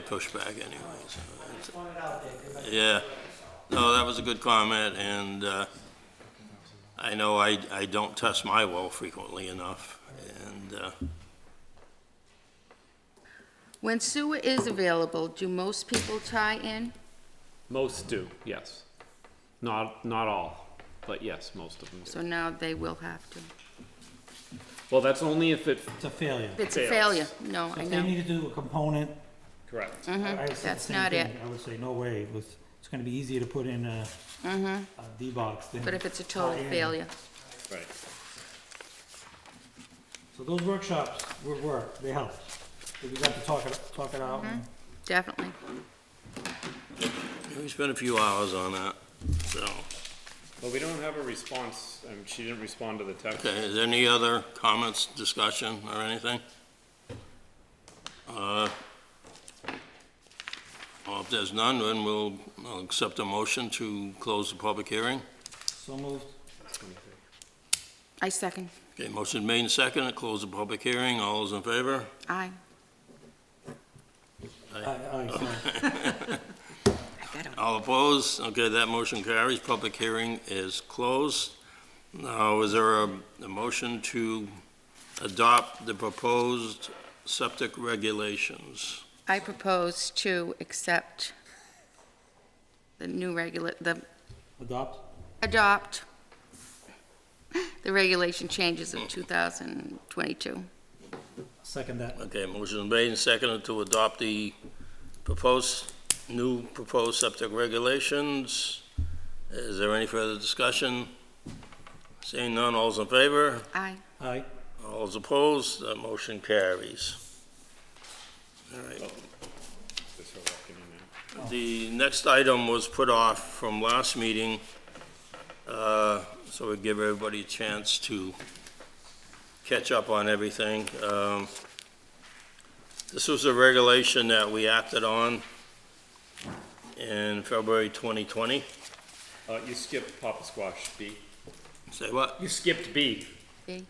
pushed back anyway, so it's- Point it out there, 'cause I- yeah. No, that was a good comment, and uh, I know I, I don't test my well frequently enough, and uh, When sewer is available, do most people tie in? Most do, yes. Not, not all, but yes, most of them do. So now they will have to. Well, that's only if it, it's a failure. It's a Fails. failure. No, I If they know. need to do a component, correct. Uh. I would say the That's same not thing. it. I would say, no way, it was- it's gonna be easier to put in a, a D-box than. Mm-hmm. But if it's a total tie in. failure, Right. So those workshops were work, they helped. So We got to talk it, talk it out. Mm-hmm. and- definitely. we spent a few hours on that, so. But we don't have a response, um, she didn't respond to the text. Okay, is there any other comments, discussion, or anything? Uh, Well, if there's none, then we'll I'll accept a motion to close the public hearing. So moved. I second. Okay, motion made and seconded, close the public hearing, all those in favor? Aye. Aye, aye, so I got it. All opposed? Okay, that motion carries. Public hearing is closed. Now, is there a, a motion to adopt the proposed septic regulations? I propose to accept the new regula, the, adopt. adopt the regulation changes of 2022. Second that. Okay, motion made and seconded to adopt the proposed, new proposed septic regulations. Is there any further discussion? Seeing none, all's in favor? Aye. Aye. All's opposed? That motion carries. All right. Just her walking in now. The next item was put off from last meeting, uh, so we give everybody a chance to catch up on everything. Um, This was a regulation that we acted on in February 2020. Uh, you skipped Papa Squash B. Say what? You skipped B. B.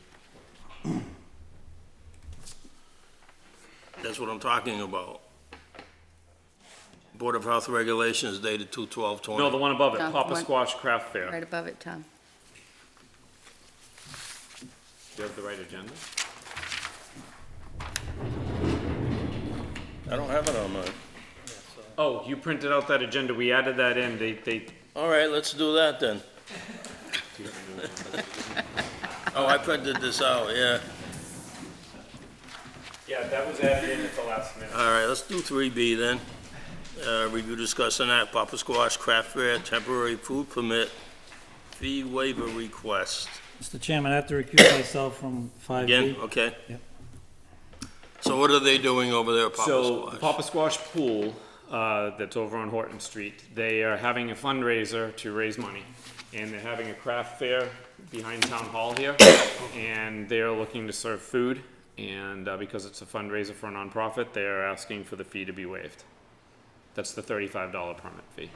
That's what I'm talking about. Board of Health Regulations dated 2/12/20. No, the one above it, No, Papa one- Squash Craft Fair. Right above it, Tom. Do you have the right agenda? I don't have it on mine. Oh, you printed out that agenda, we added that in, they, they, All right, let's do that then. Oh, I printed this out, yeah. yeah, that was added in at the last minute. All right, let's do three B then. Uh, review, discuss, and act, Papa Squash Craft Fair temporary food permit fee waiver request. Mr. Chairman, I have to recuse myself from five B. Again, okay? Yep. So what are they doing over there, at So Papa Squash? the Papa Squash Pool, uh, that's over on Horton Street, they are having a fundraiser to raise money. And they're having a craft fair behind Town Hall here. And they're looking to serve food. And uh, because it's a fundraiser for a nonprofit, they are asking for the fee to be waived. That's the thirty-five dollar permit fee.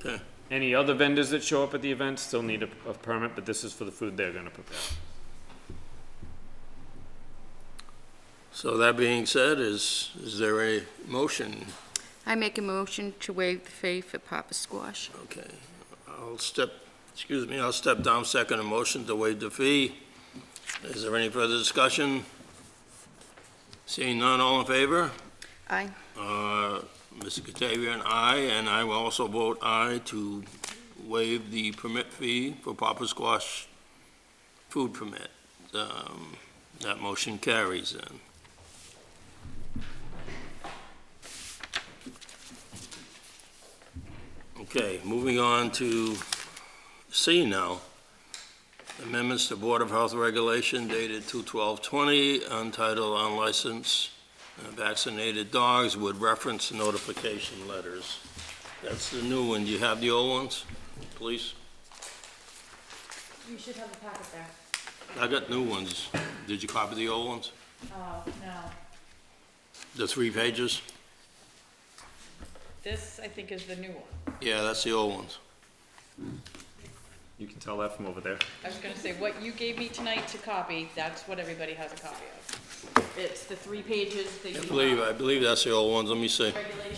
Okay. Any other vendors that show up at the event still need a, a permit, but this is for the food they're gonna prepare. So that being said, is, is there a motion? I make a motion to waive the fee for Papa Squash. Okay, I'll step, excuse me, I'll step down second and motion to waive the fee. Is there any further discussion? Seeing none, all in favor? Aye. Uh, Mr. Katavia and I, and I will also vote aye to waive the permit fee for Papa Squash food permit. Um, That motion carries then. Okay, moving on to C now. Amendments to Board of Health Regulation dated 2/12/20, untitled unlicensed uh, vaccinated dogs would reference notification letters. That's the new one. Do you have the old ones, please? You should have a packet there. I got new ones. Did you copy the old ones? Oh, no. The three pages? This, I think, is the new one. Yeah, that's the old ones. You can tell that from over there. I was gonna say, what you gave me tonight to copy, that's what everybody has a copy of. It's the three pages that you I have. believe, I believe that's the old ones, let me see. Regulation